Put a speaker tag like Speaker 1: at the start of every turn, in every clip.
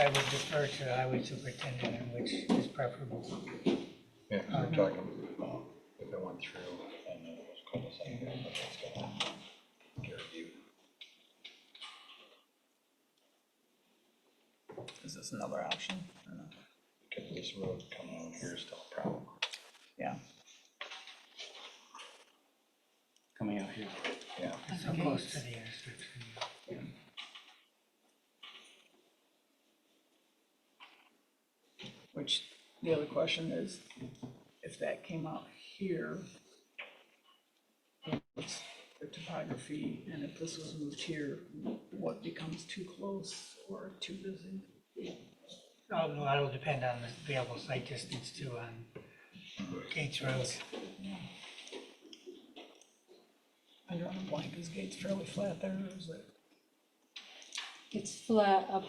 Speaker 1: I would defer to the highway superintendent, and which is preferable.
Speaker 2: Yeah, 'cause we're talking, about if it went through, and then it was cul-de-sac, but that's gonna get reviewed.
Speaker 3: Is this another option? I don't know.
Speaker 2: Because this road coming out here is still a problem.
Speaker 3: Yeah,
Speaker 4: coming out here.
Speaker 2: Yeah,
Speaker 1: So close to the intersection.
Speaker 3: which, the other question is, if that came out here, what's the topography, and if this was moved here, what becomes too close or too busy?
Speaker 1: Oh, no, that'll depend on the available site distance too on Gates Road.
Speaker 3: I don't know, like, is Gates fairly flat there, or is it?
Speaker 5: It's flat up,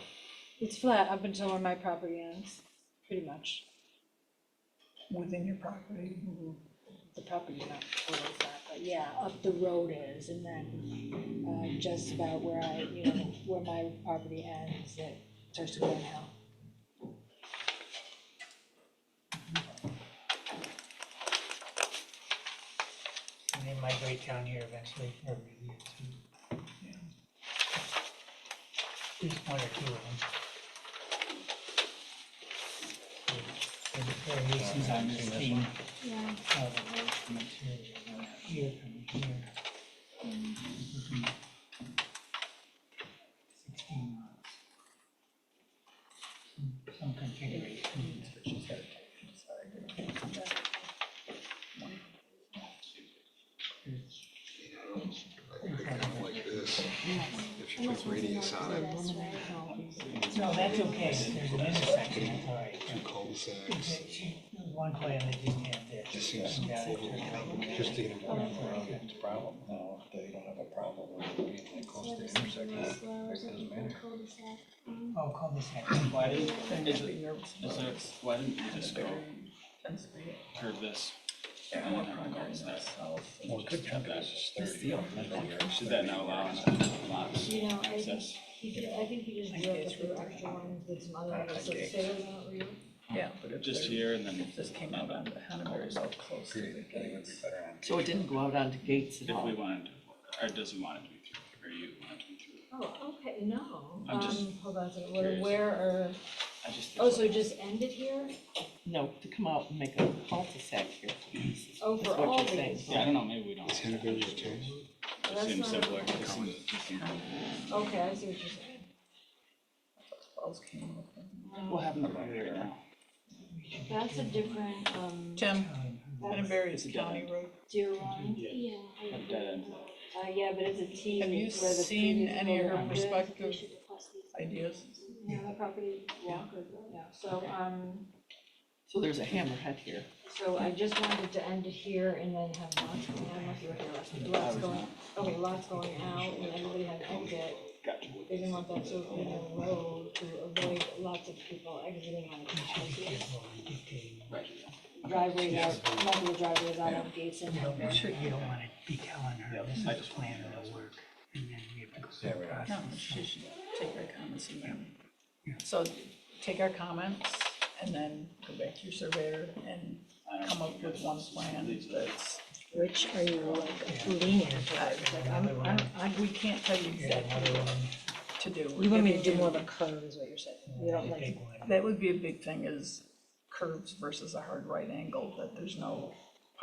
Speaker 5: it's flat up until where my property ends, pretty much.
Speaker 3: within your property.
Speaker 5: The property's not totally flat, but yeah, up the road is, and then, uh, just about where I, you know, where my property ends, it starts to go downhill.
Speaker 1: And they migrate down here eventually for review too.
Speaker 3: Yeah.
Speaker 1: At least one or two of them. There's variations on this theme.
Speaker 5: Yeah.
Speaker 1: of material, uh, Here from here. Mhm. Sixteen lots. Some- Some configuration.
Speaker 2: like this, if you put radius on it,
Speaker 1: No, that's okay, there's an intersection, that's all right.
Speaker 2: two cul-de-sacs,
Speaker 1: She- she- there was One plan that didn't have this.
Speaker 2: Just seems
Speaker 1: Got it.
Speaker 2: just to get them around its problem. Now, if they don't have a problem with it being that close to the intersection, it doesn't matter.
Speaker 1: Oh, cul-de-sac.
Speaker 4: Why didn't,
Speaker 3: Then
Speaker 4: is
Speaker 3: I'd
Speaker 4: it,
Speaker 3: be nervous
Speaker 4: is
Speaker 3: about
Speaker 4: there, why didn't we just go
Speaker 3: density, density.
Speaker 4: curve this?
Speaker 3: Yeah,
Speaker 4: And
Speaker 3: more
Speaker 4: then have
Speaker 3: primary
Speaker 4: goals that-
Speaker 2: Well, a good chunk of this is
Speaker 4: That's
Speaker 2: thirty.
Speaker 4: the
Speaker 2: or
Speaker 4: element.
Speaker 2: 40 yards,
Speaker 4: Should that
Speaker 2: 30
Speaker 4: now allow
Speaker 2: yards.
Speaker 4: us to lock
Speaker 5: You know, I think,
Speaker 4: access?
Speaker 5: he did- I think he just broke up the extra ones with some other ones, so
Speaker 3: Okay.
Speaker 5: say it out real.
Speaker 3: Yeah, but if
Speaker 4: Just
Speaker 3: there-
Speaker 4: here and then
Speaker 3: If this came out on the Hanover, it's all close to the
Speaker 2: Agreed, I think it would be
Speaker 3: gates.
Speaker 2: better on
Speaker 6: So Oh, it didn't go out onto gates at
Speaker 4: if
Speaker 6: all?
Speaker 4: we wanted, to- or does we want it to be through, or you want it to be through?
Speaker 5: Oh, okay, no,
Speaker 4: I'm just
Speaker 5: um, hold on a second, where,
Speaker 4: curious.
Speaker 5: where are,
Speaker 4: I just.
Speaker 5: oh, so it just ended here?
Speaker 6: No, to come out and make a cul-de-sac here.
Speaker 5: Oh,
Speaker 6: That's
Speaker 5: for
Speaker 6: what
Speaker 5: all
Speaker 6: you're saying.
Speaker 5: these.
Speaker 4: Yeah, I don't know, maybe we don't.
Speaker 2: It's individual change.
Speaker 4: It
Speaker 5: That's
Speaker 4: seems
Speaker 5: not-
Speaker 4: simpler. It seems-
Speaker 5: Okay, I see what you're saying.
Speaker 3: Wells came up and-
Speaker 4: We'll have them right now.
Speaker 5: That's a different, um,
Speaker 6: Tim,
Speaker 1: Well,
Speaker 6: Hanover
Speaker 4: It's
Speaker 6: is
Speaker 4: a
Speaker 6: a
Speaker 4: dead
Speaker 6: county
Speaker 4: end.
Speaker 6: road.
Speaker 5: deer line.
Speaker 7: Yeah. I
Speaker 4: A
Speaker 7: agree.
Speaker 4: dead end.
Speaker 5: Uh, yeah, but it's a T.
Speaker 6: Have you
Speaker 5: where the
Speaker 6: seen
Speaker 5: previous
Speaker 6: any of her
Speaker 5: owner owned it.
Speaker 6: perspective
Speaker 7: Should request these.
Speaker 6: ideas?
Speaker 5: Yeah, the property walker, yeah, so, um,
Speaker 6: So there's a hammerhead here.
Speaker 5: so I just wanted to end it here and then have lots going, I don't know if you were here last, lots going, okay, lots going out, and everybody had to exit.
Speaker 4: Gotcha.
Speaker 5: They didn't want that sort of inner road to avoid lots of people exiting on the houses.
Speaker 1: we dictate.
Speaker 5: Driveways are, multiple driveways out of gates and.
Speaker 1: You
Speaker 5: out.
Speaker 1: don't want- you don't want to be telling her,
Speaker 4: Yep,
Speaker 1: this is
Speaker 4: I
Speaker 1: the
Speaker 4: just
Speaker 1: plan
Speaker 4: wanted to
Speaker 1: that'll work. And then we have to go
Speaker 2: Yeah,
Speaker 1: through the
Speaker 2: we don't.
Speaker 1: process.
Speaker 6: No, she should take our comments and then- So take our comments and then go back to your surveyor and come up with one plan that's.
Speaker 5: Which are you like leaning
Speaker 6: I- like, I'm- I'm- I- We can't tell you
Speaker 1: Here's
Speaker 6: exactly
Speaker 1: another
Speaker 6: what
Speaker 1: one.
Speaker 6: to do.
Speaker 5: You want me to
Speaker 6: If
Speaker 5: do more of a curve is what you're saying, you don't
Speaker 1: The
Speaker 5: like,
Speaker 1: big one.
Speaker 6: That would be a big thing is curves versus a hard right angle, that there's no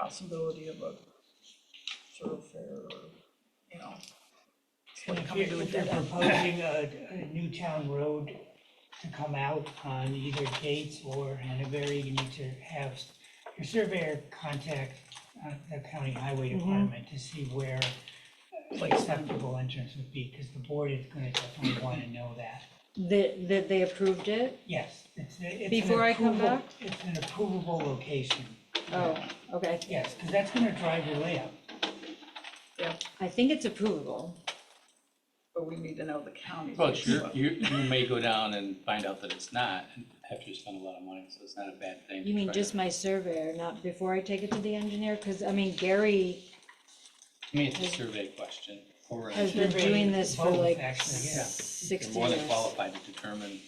Speaker 6: possibility of a thoroughfare or, you know.
Speaker 1: And
Speaker 6: What
Speaker 1: if
Speaker 6: coming
Speaker 1: you're-
Speaker 6: to a
Speaker 1: If you're
Speaker 6: dead end.
Speaker 1: proposing a, a new town road to come out on either Gates or Hanoveri, you need to have your surveyor contact uh, the county highway
Speaker 5: Mm-hmm.
Speaker 1: department to see where uh,
Speaker 6: Like-
Speaker 1: acceptable entrance would be, because the board is gonna definitely wanna know that.
Speaker 5: that, that they approved it?
Speaker 1: Yes, it's, a- it's an
Speaker 5: Before I come
Speaker 1: approvable-
Speaker 5: back?
Speaker 1: It's an approvable location,
Speaker 5: Oh, okay,
Speaker 1: yes, because that's gonna drive your layout.
Speaker 5: I think it's approvable.
Speaker 6: But we need to know the county.
Speaker 8: Well, you, you, you may go down and find out that it's not, and have to spend a lot of money, so it's not a bad thing.
Speaker 5: You mean
Speaker 8: But,
Speaker 5: just my surveyor, not before I take it to the engineer, cause I mean, Gary
Speaker 8: I mean, it's a survey question, or
Speaker 5: has been
Speaker 1: Survey
Speaker 5: doing this for
Speaker 1: both,
Speaker 5: like
Speaker 1: actually, yeah.
Speaker 5: sixty
Speaker 8: you're more than
Speaker 5: years.
Speaker 8: qualified to determine